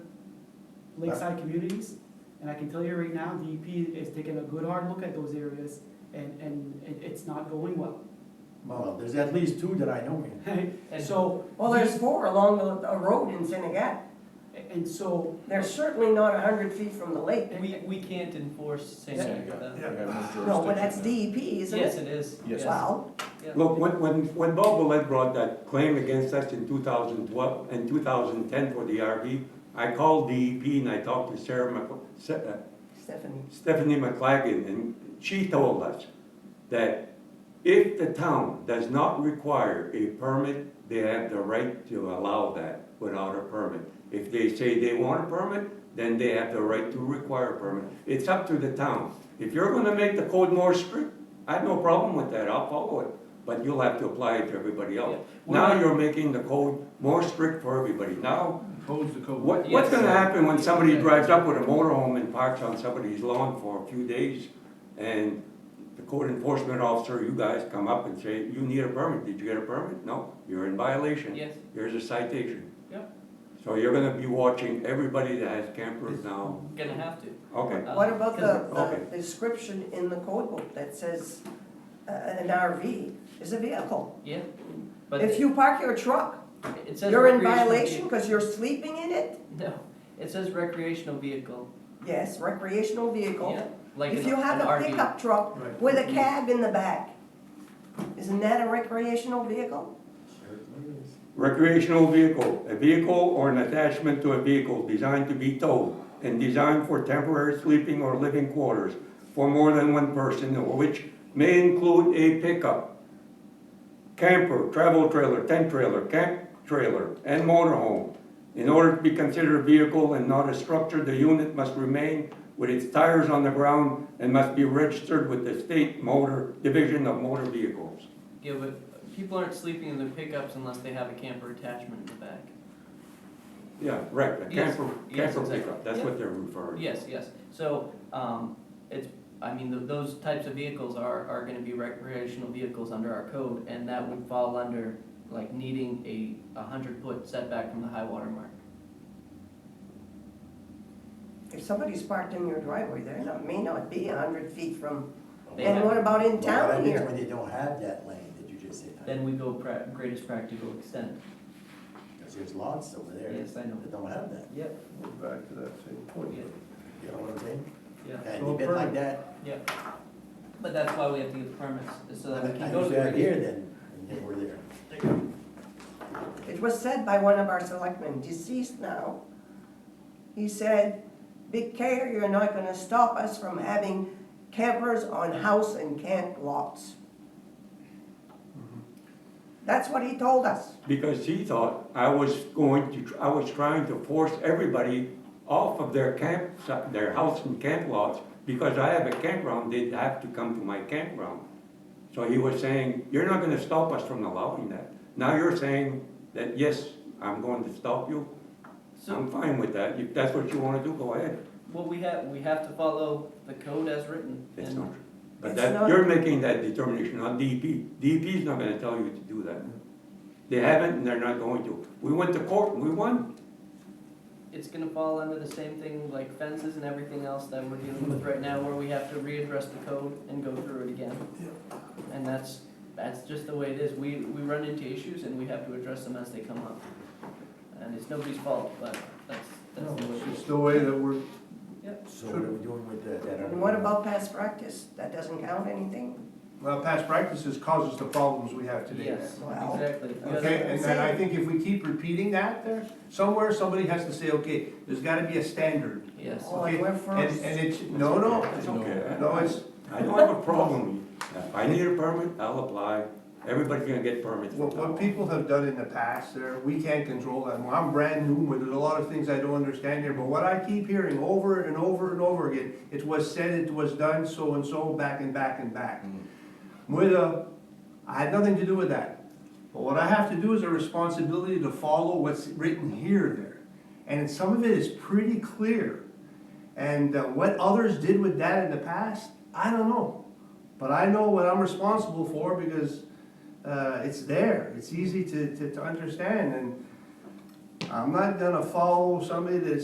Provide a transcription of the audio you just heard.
lakeside communities. And I can tell you right now, DEP is taking a good hard look at those areas and, and it, it's not going well. Well, there's at least two that I know in. And- So, Well, there's four along the, a road in Senegat. and so, They're certainly not a hundred feet from the lake. We, we can't enforce St. Yeah, John. yeah, we have jurisdiction No, but that's there. DEP, isn't Yes, it? it is. Yes. Well, yeah. Look, when, when, when Bob Willett brought that claim against us in two thousand twelve, and two thousand ten for the RV, I called DEP and I talked to Sarah Mc, Se- uh, Stephanie, Stephanie McLagan, and she told us that if the town does not require a permit, they have the right to allow that without a permit. If they say they want a permit, then they have the right to require a permit. It's up to the town. If you're gonna make the code more strict, I have no problem with that, I'll follow it, but you'll have to apply it to everybody else. Yeah. Now you're making the code more strict for everybody. Now Pose the code. what, what's Yes. gonna happen when somebody drives up with a motorhome and parks on somebody's lawn for a few days? And the code enforcement officer, you guys come up and say, you need a permit, did you get a permit? No, you're in violation, Yes, here's a citation. Yep. So you're gonna be watching everybody that has campers now, gonna have to. okay, Uh, what about the, Okay. the description in the code book that says uh, an RV is a vehicle? Yeah, but If it you park your truck, it says. you're in recreational violation because you're sleeping in it? vehi- No, it says recreational vehicle. Yes, recreational Yeah, vehicle. like If an- you have an a RV. pickup truck Right. with a Mm-hmm. cab in the back, isn't that a recreational vehicle? recreational vehicle, a vehicle or an attachment to a vehicle designed to be towed and designed for temporary sleeping or living quarters for more than one person, which may include a pickup, camper, travel trailer, tent trailer, camp trailer, and motorhome. In order to be considered a vehicle and not a structure, the unit must remain with its tires on the ground and must be registered with the state motor, Division of Motor Vehicles. Yeah, but people aren't sleeping in their pickups unless they have a camper attachment in the back. Yeah, right, a Yes, camper, yes, camper exactly. pickup, that's what they're referring to. Yes, yes, so, um, it's, I mean, th- those types of vehicles are, are gonna be recreational vehicles under our code, and that would fall under, like, needing a, a hundred foot setback from the high water mark. If somebody's parked in your driveway, they not, may not be a hundred feet from, They and have- what about in Well, that town means here? when they don't have that lane that you just said. Then we go pra- greatest practical extent. Because there's lots over there Yes, I know. that don't have that, Yep. We're Back to that same point. Yeah. you know what I'm saying? Yeah, And So you've been like permanent. that, but that's why we have to get the permits, is so that we I can go to was the out greatest. here then, and then we're there. It was said by one of our selectmen, deceased now. He said, Big Care, you're not gonna stop us from having campers on house and camp lots. That's what he told us. because he thought I was going to, I was trying to force everybody off of their camp, their house and camp lots, because I have a campground, they'd have to come to my campground. So he was saying, you're not gonna stop us from allowing that. Now you're saying that, yes, I'm going to stop you, So, I'm fine with that, if that's what you wanna do, go ahead, well, we have, we have to follow the code as written. that's and- not true. But It's that, not- you're making that determination, not DEP, DEP is not gonna tell you to do that. They haven't, and they're not going to. We went to court, and we won. It's gonna fall under the same thing, like fences and everything else that we're dealing with right now, where we have to readdress the code and go through it again. And that's, that's just the way it is, we, we run into issues and we have to address them as they come up. And it's nobody's fault, but that's, that's No, the way it's it is. just the way that we're, So what are we doing with that? that other And what one? about past practice? That doesn't count anything? well, past practices causes the problems we have today. Yes, Well, exactly. Okay, and then I think if we keep repeating that there, somewhere somebody has to say, okay, there's gotta be a standard. Yes, Well, like Okay, Oh, we're And, first. and it's, no, no, It's okay. no, it's, I don't have a problem. If I need a permit, I'll apply. Everybody's gonna get permits. what, what people have done in the past there, we can't control that. Well, I'm brand new, with there's a lot of things I don't understand here, but what I keep hearing over and over and over again, it was said, it was done, so and so, back and back and back. Muda, I had nothing to do with that. But what I have to do is a responsibility to follow what's written here there. And some of it is pretty clear. And uh, what others did with that in the past, I don't know. But I know what I'm responsible for because uh, it's there. It's easy to, to, to understand. And I'm not gonna follow somebody that's